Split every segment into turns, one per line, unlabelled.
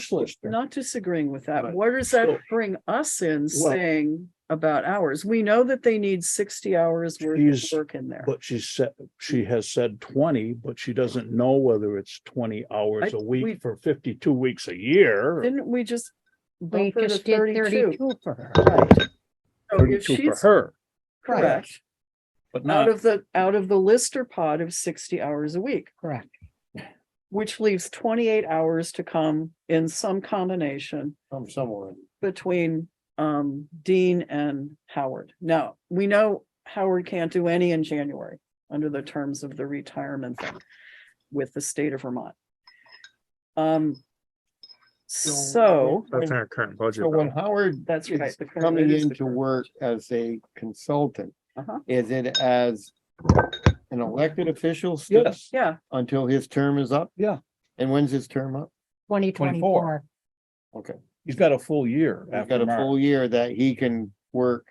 socialist. there.
not disagreeing with that.
But
Where does that
still-
bring us in
Well-
saying about hours? We know that they need sixty hours worth of
She's-
work in there.
But she said, she has said twenty, but she doesn't know whether it's twenty hours
I-
a
we-
week for fifty-two weeks a year. or
Didn't we just
We
bump her to
just did
thirty-two?
thirty-two for her.
So if
32 for
she's
her,
Correct,
correct,
but
out
not,
of the, out of the Lister pod of sixty hours a week,
correct.
which leaves twenty-eight hours to come in some combination
from somewhere.
between um Dean and Howard. Now, we know Howard can't do any in January under the terms of the retirement thing with the state of Vermont. Um, so
That's in our current budget.
So when Howard
that's right.
is
the current-
coming
it is
in
the
to
current-
work as a consultant,
Uh-huh.
is it as an elected official still
yes,
Yeah,
until his term is up?
Yeah.
And when's his term up?
Twenty twenty-four.
Okay,
he's got a full year
he's got
after
a
March,
full year that he can work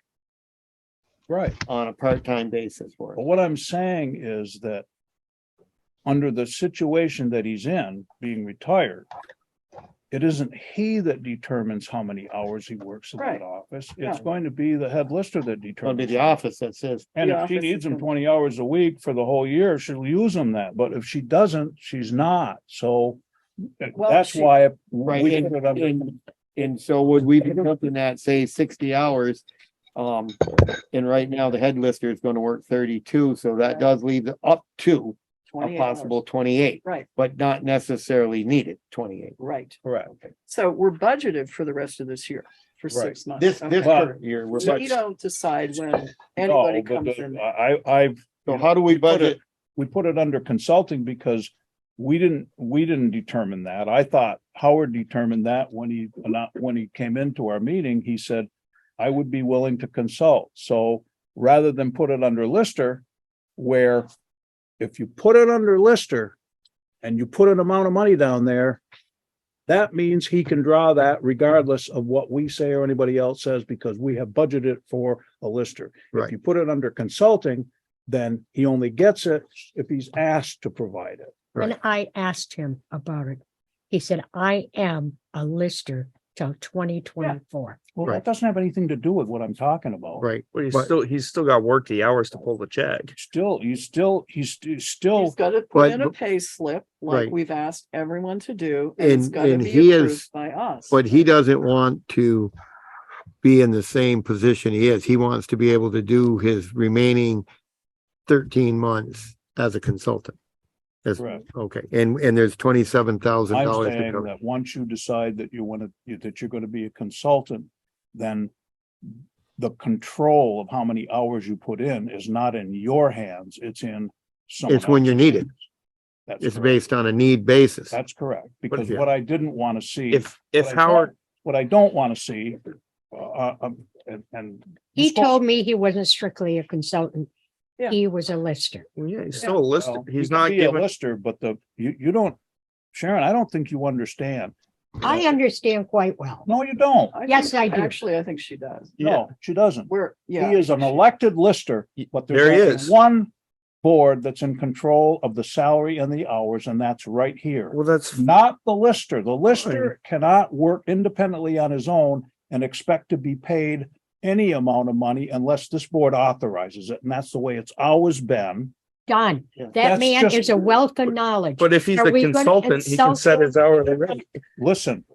right?
on a part-time basis for
But
it.
what I'm saying is that under the situation that he's in, being retired, it isn't he that determines how many hours he works in
Right.
that office. It's
No.
going to be the head lister that
It'll be
determines.
the office that says,
And
Yeah.
if she needs
Office
him
is-
twenty hours a week for the whole year, she'll use him that, but if she doesn't, she's not, so eh,
Well,
that's
she-
why
right,
we put it
and,
under
and, and so would we be something that, say, sixty hours? Um, and right now, the head lister is gonna work thirty-two, so that does leave the up to a
28 hours.
possible twenty-eight,
Right,
but not necessarily needed twenty-eight.
right.
correct.
So we're budgeted for the rest of this year for
Right.
six months.
This,
Okay.
this current year, we're,
So We
budget-
don't decide when
No,
anybody
but
comes in.
the- I, I,
so how do we
put
budget?
it, we put it under consulting because we didn't, we didn't determine that. I thought Howard determined that when he, not, when he came into our meeting, he said, I would be willing to consult. So rather than put it under Lister, where if you put it under Lister and you put an amount of money down there, that means he can draw that regardless of what we say or anybody else says because we have budgeted for a Lister. If
Right.
you put it under consulting, then he only gets it if he's asked to provide it.
When I asked him about it, he said, I am a lister till twenty twenty-four.
Well, that
Right.
doesn't have anything to do with what I'm talking about.
Right, but he's
But-
still, he's still got work the hours to pull the check.
Still, he's still, he's st-
He's
still,
gotta put
but-
in a pay slip like
Right.
we've asked everyone to do. and it's
And-
gotta
and
be
he is-
approved By us.
But he doesn't want to be in the same position he is. He wants to be able to do his remaining thirteen months as a consultant. As,
Correct.
okay, and, and there's twenty-seven thousand
I'm
dollars to
saying
cover.
that once you decide that you want to, that you're going to be a consultant, then the control of how many hours you put in is not in your hands, it's in someone.
It's when
else's
you're needed.
hands. That's
It's
correct.
based on a need basis.
That's correct, because
yeah.
what I didn't want to see.
If, if
what I
Howard,
don't- What I don't want to see, uh, um, and, and.
He
Scott-
told me he wasn't strictly a consultant.
Yeah.
He was a lister.
well, yeah, he's still a lister.
Well, "Oh, you
He's
can
not
be a
given,
Lister, but the, you, you don't, Sharon, I don't think you understand.
I understand quite well.
No, you don't.
I
Yes,
think-
I do.
Actually, I think she does.
No, she doesn't.
We're,
He
yeah.
is an elected lister, but
There he
there's only
is.
one board that's in control of the salary and the hours, and that's right here.
well, that's,
Not the lister. The lister cannot work independently on his own and expect to be paid any amount of money unless this board authorizes it, and that's the way it's always been.
Don,
Yeah.
that
That's
man
just-
is a wealth of knowledge.
but if he's
Are
a
we gonna
consultant, he can
insult
set
him?
his hourly rate.
Listen,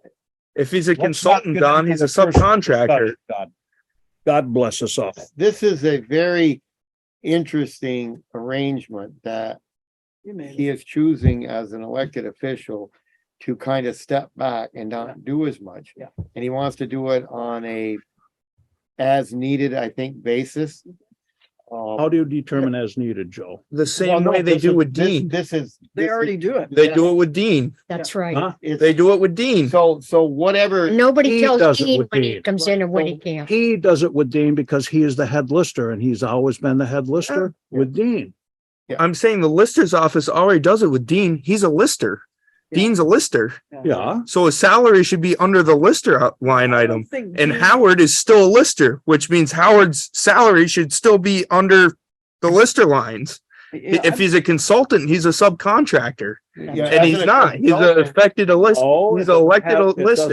If he's a
not
consultant,
get
Don,
into
he's a
the first
subcontractor.
God, God bless us all.
This is a very interesting arrangement that
You mean-
he is choosing as an elected official to kind of step back and
Yeah.
not do as much.
Yeah.
And he wants to do it on a as needed, I think, basis. Um,
How do you determine as needed, Joe?
The
well,
same
no,
way they
this
do
is-
with
this-
Dean.
This is.
They
this
already
is-
do it.
They do it with Dean.
That's right.
Huh?
it's-
They do it with Dean.
So, so
Mm.
whatever,
Nobody
He
tells
does it
Dean
with
when he
me.
comes in and when he
So
can't.
He does it with Dean because he is the head lister and he's always been the head lister with Dean.
I'm saying the lister's office already does it with Dean. He's a lister.
Yeah.
Dean's a lister.
Yeah,
So his salary should be under the lister uh, line
I
item.
don't think
And
Dean-
Howard is still a lister, which means Howard's salary should still be under the lister lines.
Yeah,
If he's a consultant, he's a subcontractor
Yeah,
and
as
he's
an
not. He's a
consultant-
affected a list.
Oh,
He's
it doesn't
elected
have-
a
it
list.